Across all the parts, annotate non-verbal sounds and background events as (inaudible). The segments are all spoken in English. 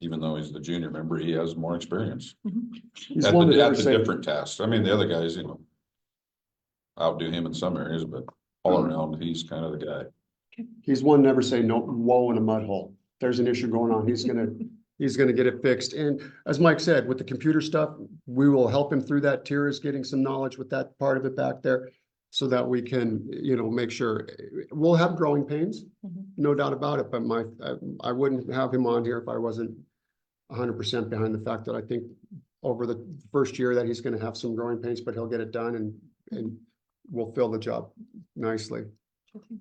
even though he's the junior member, he has more experience. He's At one that the, ever at the said, different tasks. I mean, the other guys, you know. Outdo him in some areas, but all Hmm. around, he's kind of the guy. he's one never say no, whoa in a mud hole. There's an issue going on. He's gonna, he's gonna get it fixed. And as Mike said, with the computer stuff, we will help him through that. Tira's getting some knowledge with that part of it back there. So that we can, you know, make sure, we'll have growing pains, Mhm. no doubt about it, but my, I- I wouldn't have him on here if I wasn't hundred percent behind the fact that I think over the first year that he's gonna have some growing pains, but he'll get it done and, and we'll fill the job nicely. Okay.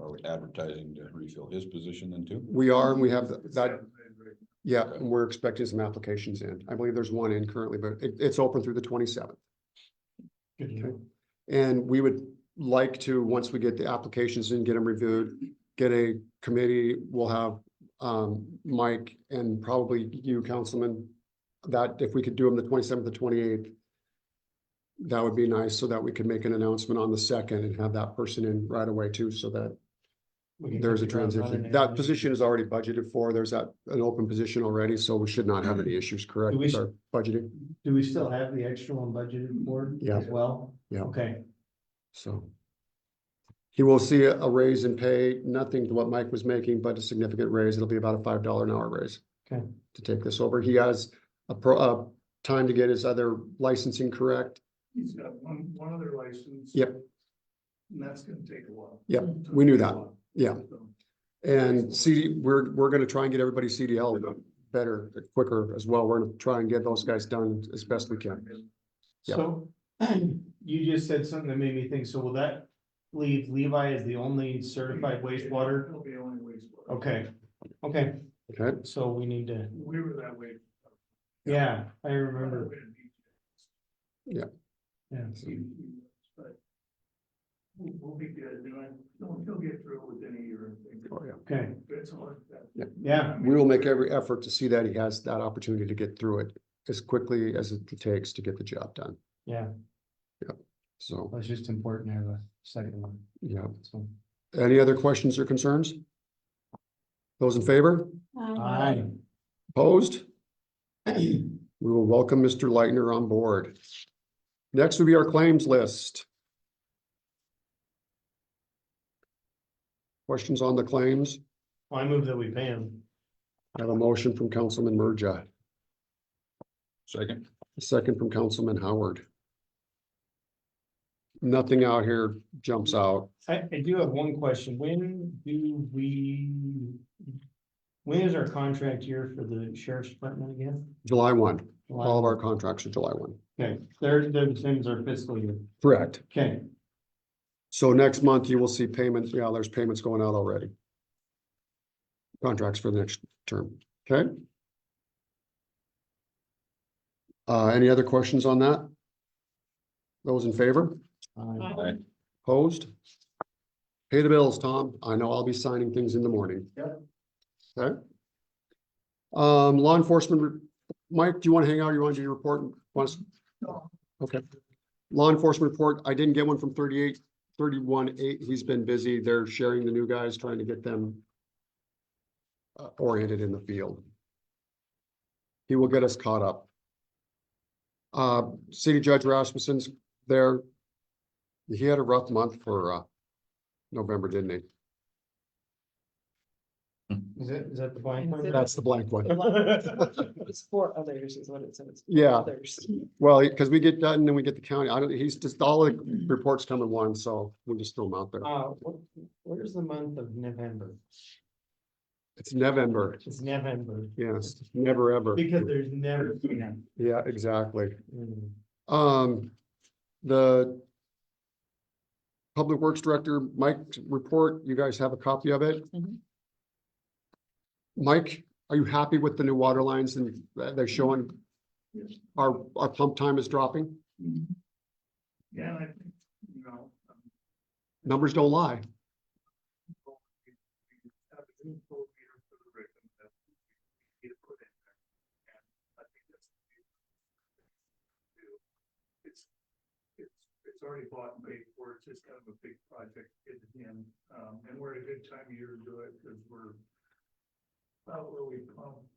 Are we uh, advertising to refill his position then too? We are, and we have th- that, yeah, and we're expecting some applications in. I believe there's one in currently, but it, it's open through the twenty-seventh. Okay, and we would like to, once we get the applications in, get them reviewed, get a committee, we'll have um, Mike and probably you, Councilman, that if we could do them the twenty-seventh, the twenty-eighth, that would be nice, so that we could make an announcement on the second and have that person in right away too, so that We can there's a hit the ground transition. running That and- position is already budgeted for. There's that, an open position already, so we should not have any issues, correct? Mm-hmm. Do we With s- our budgeting, Do we still have the extra one budgeted for Yeah. as well? Yeah. Okay, so. He will see a a raise in pay, nothing to what Mike was making, but a significant raise. It'll be about a five dollar an hour raise. Okay. To take this over. He has a pro, uh, time to get his other licensing correct. He's got one, one other license. Yep. And that's gonna take a while. Yep, we knew that, yeah. So, And CD, we're, we're gonna try and get everybody CDL better, quicker as well. We're gonna try and get those guys done as best we can. Yeah. so (clears throat) you just said something that made me think, so will that leave Levi as the only certified wastewater? It'll be only wastewater. Okay, okay, Okay, so we need to, We were that way. yeah, I remember, yeah. But We'll, we'll be good, you know, he'll- he'll get through it within a year. I think. oh yeah. Okay, It's hard, that- yeah, We will make every effort to see that he has that opportunity to get through it as quickly as it takes to get the job done. yeah, So, that's just important to have a second one, yeah. so. Any other questions or concerns? Those in favor? Um, Aye. Opposed? (clears throat) We will welcome Mr. Lightner on board. Next will be our claims list. Questions on the claims? Well, I move that we pay him. I have a motion from Councilman Merja, Second, a second from Councilman Howard. Nothing out here jumps out. I, I do have one question. When do we? When is our contract year for the sheriff's department again? July one, July? all of our contracts are July one. Okay, third, third is our fiscal year. Correct. Okay, So next month you will see payments, yeah, there's payments going out already. Contracts for the next term, okay? Uh, any other questions on that? Those in favor, uh, Aye. opposed? Pay the bills, Tom. I know I'll be signing things in the morning. Yep. Okay. Um, law enforcement, re- Mike, do you want to hang out? You want to do your report? Wants- No. Okay. Law enforcement report, I didn't get one from thirty-eight, thirty-one, eight. He's been busy. They're sharing the new guys, trying to get them uh, oriented in the field. He will get us caught up. Uh, City Judge Rasmussen's there. He had a rough month for, uh, November, didn't he? is that, is that the blank one? That's the blank one. It's for others is what it says. Yeah, Others. well, because we get done and then we get the county. I don't, he's just, all the reports come in one, so we just throw them out there. Uh, what, what is the month of November? It's November. It's November. Yes, never ever. Because there's never. yeah. Yeah, exactly. Mm. Um, the Public Works Director, Mike, report, you guys have a copy of it? Mhm. Mike, are you happy with the new water lines and that they're showing? Yes. Our, our pump time is dropping? Yeah, and I think, you know, um, Numbers don't lie. have a new full year for the rhythm that we need to put in there. And I think that's. the key to do. It's, it's, it's already bought and paid for, it's just kind of a big project at the end, um, and we're at a good time of year to do it, because we're. about where we've come.